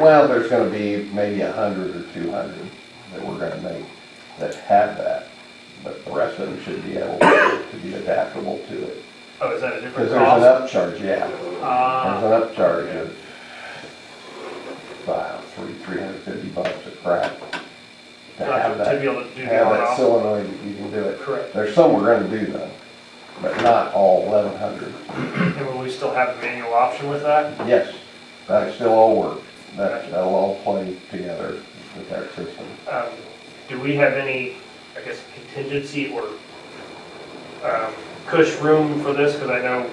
Well, there's gonna be maybe a hundred or two hundred that we're gonna make that have that, but the rest of them should be able to be adaptable to it. Oh, is that a different Because there's an cost? upcharge, yeah, there's Ah, an upcharge of about three, three hundred fifty bucks a crack. To have gotcha, to that, be able to do the have on that off. solenoid, that you can do it. Correct, There's some we're gonna do though, but not all eleven hundred. and will we still have the manual option with that? Yes, that still all work, that, that'll all play together with that system. Um, do we have any, I guess, contingency or, um, cush room for this? Cause I know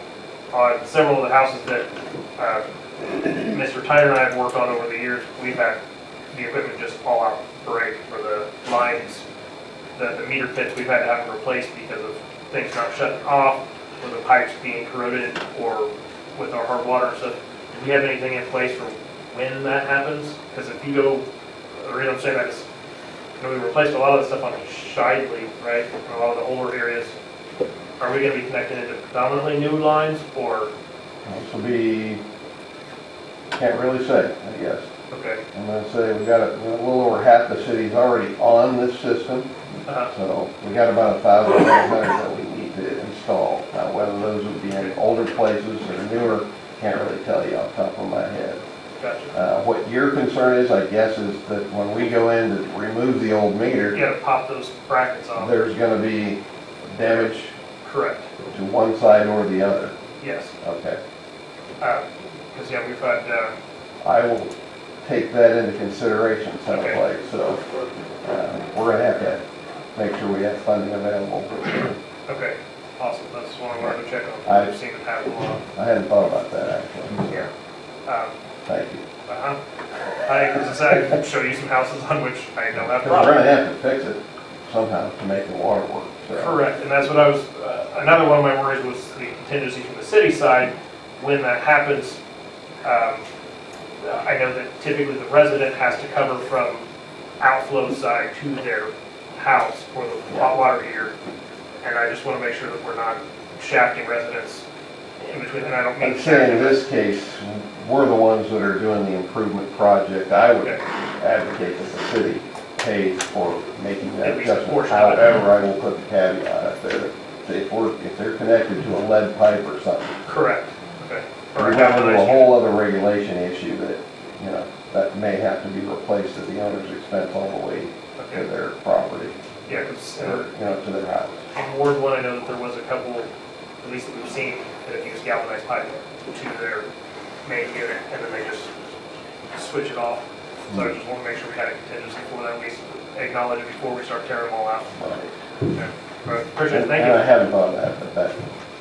on several of the houses that, uh, Mr. Tyner and I have worked on over the years, we've had the equipment just fall out break for the lines, the, the meter pits, we've had to have them replaced because of things not shutting off, or the pipes being corroded, or with our hard water and stuff. Do we have anything in place for when that happens? Because if you go, the reason I'm saying that is, you know, we replaced a lot of the stuff on Shidley, right, a lot of the older areas. Are we gonna be connected into predominantly new lines, or, This will be, can't really say, I guess. okay, I'm gonna say we got a a little over half the city's already on this system, uh, so we got about a thousand five hundred that we need to install. Now, whether those would be in older places or newer, can't really tell you off the top of my head. gotcha. Uh, What your concern is, I guess, is that when we go in to remove the old You meter, gotta pop those brackets off, there's gonna be damage correct, to one side or the other. yes. Okay. Because, yeah, we've had, uh, I will take that into consideration Okay. someplace, so uh, we're gonna have to make sure we have funding available. okay, awesome, that's one I wanted to check on. I- I've seen it happen a lot, I hadn't thought about that, actually. yeah. Um, Thank you. uh-huh. I, as I said, I can show you some houses on which I don't have 'Cause we're problems. gonna have to fix it somehow to make the water work, so. Correct, and that's what I was, uh, another one of my worries was the contingency from the city side. When that happens, um, I know that typically the resident has to cover from outflow side to their house for the hot water heater. And I just want to make sure that we're not shafting residents in between, and I don't mean. I'm saying in this case, we're the ones that are doing the improvement project. I would Okay. advocate that the city pays for making that At least a adjustment. portion of it. However, I will put the caveat up there, that if we're, if they're connected to a lead pipe or something, Correct, okay. Or We're down to a galvanized whole other regulation issue that, you know, that may have to be replaced at the owner's expense all the way unit. to Okay, their property, yeah, 'cause, uh, or, you know, to their house. In Ward one, I know that there was a couple, at least that we've seen, that have used galvanized pipe to their main unit, and then they just switch it off. So I just want to make sure we had a contingency for that, we acknowledge it before we start tearing them all out. Right. Okay. But Appreciate it, And thank and I you. haven't thought of that, but that,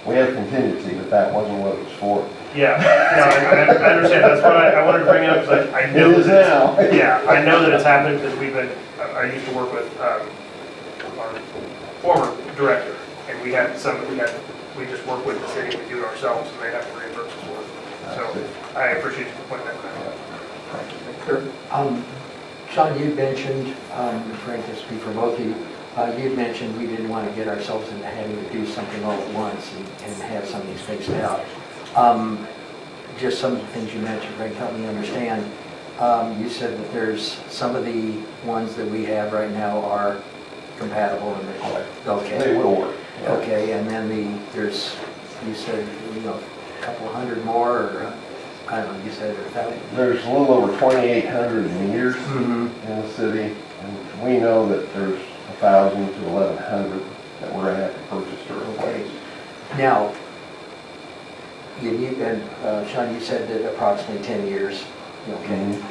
we have contingency, but that wasn't what it was for. Yeah, no, I, I- I understand, that's why I, I wanted to bring it up, because I, I It know that is it's. now. Yeah, I know that it's happened because we've been, I I used to work with um, our former director, and we had some, we had, we just work with the city, we do it ourselves, and they have to reimburse us for it. So I appreciate you pointing that out. Um, Sean, you mentioned, um, Frank, this would be for both of you, uh, you mentioned we didn't want to get ourselves into having to do something all at once and and have some of these spaced out. Um, Just some of the things you mentioned, Frank, help me understand. Um, You said that there's, some of the ones that we have right now are compatible and they're, okay. They will work. yeah. Okay, and then the, there's, you said, you know, a couple hundred more, or, uh, I don't know, you said, or that? There's a little over 2,800 meters Mm-hmm. in the city, and we know that there's 1,000 to 1,100 that we're gonna have to purchase to replace. Now, you need, and uh, Sean, you said that approximately 10 years, okay? Mhm.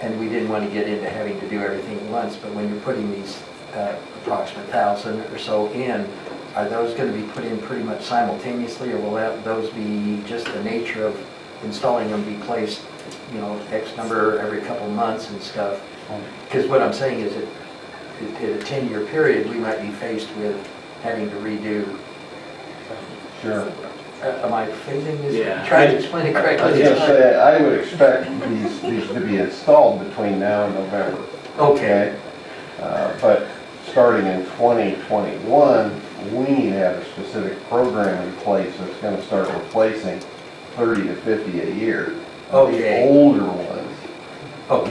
And we didn't want to get into having to do everything at once, but when you're putting these uh, approximate thousand or so in, are those going to be put in pretty much simultaneously, or will that- those be just the nature of installing them be placed, you know, X number every couple months and stuff? Because what I'm saying is that i- in a 10-year period, we might be faced with having to redo Sure. uh, Am I phrasing Yeah. this? Trying to explain it I was correctly. gonna say, I would expect these, these to be installed between now and November, Okay, okay? Uh, But starting in 2021, we need to have a specific program in place that's gonna start replacing 30 to 50 a year. of the Okay. Older ones Oh, yeah.